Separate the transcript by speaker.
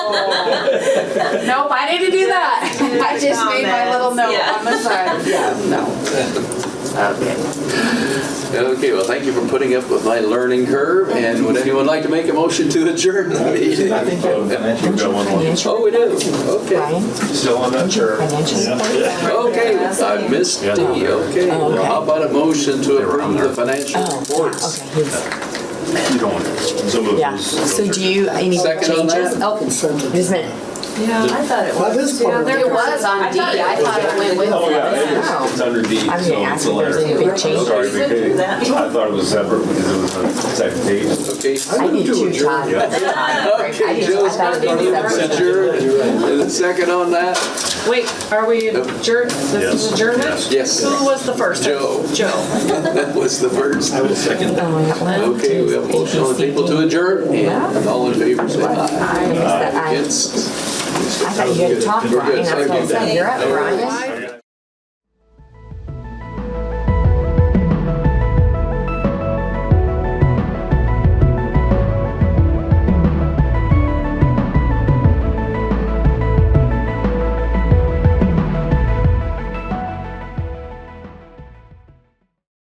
Speaker 1: Nope, I didn't do that. I just made my little note
Speaker 2: Comments, yeah.
Speaker 1: on the side. Yeah, no. Okay.
Speaker 3: Okay, well, thank you for putting up with my learning curve, and would anyone like to make a motion to adjourn the meeting?
Speaker 4: I think that
Speaker 5: Don't
Speaker 4: financial
Speaker 5: you
Speaker 4: got one more.
Speaker 5: financial,
Speaker 3: Oh, we do, okay.
Speaker 5: Brian?
Speaker 4: Still on that
Speaker 5: Don't you
Speaker 4: chair.
Speaker 5: financial?
Speaker 3: Okay, I missed D, okay.
Speaker 5: Oh, okay.
Speaker 3: Well, How about a motion to approve the financial
Speaker 5: Oh,
Speaker 3: reports?
Speaker 5: okay, he's,
Speaker 4: You don't want Some of
Speaker 5: yeah.
Speaker 4: those.
Speaker 5: So do you, any
Speaker 3: Second on
Speaker 5: changes?
Speaker 3: that?
Speaker 5: Oh, just a minute.
Speaker 2: Yeah, I thought it
Speaker 6: That
Speaker 2: was.
Speaker 6: is part of it.
Speaker 1: It was on D. I thought it went with
Speaker 4: Oh, yeah, it
Speaker 1: that.
Speaker 4: is. It's under D, so
Speaker 5: I'm gonna
Speaker 4: it's
Speaker 5: ask
Speaker 4: a
Speaker 5: if there's any
Speaker 4: letter.
Speaker 5: big
Speaker 4: Sorry,
Speaker 5: changes.
Speaker 4: because I thought it was separate because it was on the second page.
Speaker 3: Okay,
Speaker 5: I did too, Todd. I
Speaker 3: okay,
Speaker 5: just-
Speaker 3: Joe's
Speaker 5: I thought it was separate.
Speaker 3: adjourned, and a second on that?
Speaker 7: Wait, are we adjourned? This
Speaker 4: Yes.
Speaker 7: is adjournment?
Speaker 3: Yes,
Speaker 7: Who was the first?
Speaker 3: Joe.
Speaker 7: Joe.
Speaker 3: that was the first.
Speaker 6: I will second that.
Speaker 5: Oh, I got one,
Speaker 3: Okay,
Speaker 5: two,
Speaker 3: we have a
Speaker 5: three,
Speaker 3: motion on the
Speaker 5: four,
Speaker 3: table to adjourn, and all in favor, say aye.
Speaker 5: I missed that. I-
Speaker 3: Against?
Speaker 5: I thought you had talked,
Speaker 3: We're good.
Speaker 5: Brian. That's what I said. You're up, Brian.
Speaker 7: Why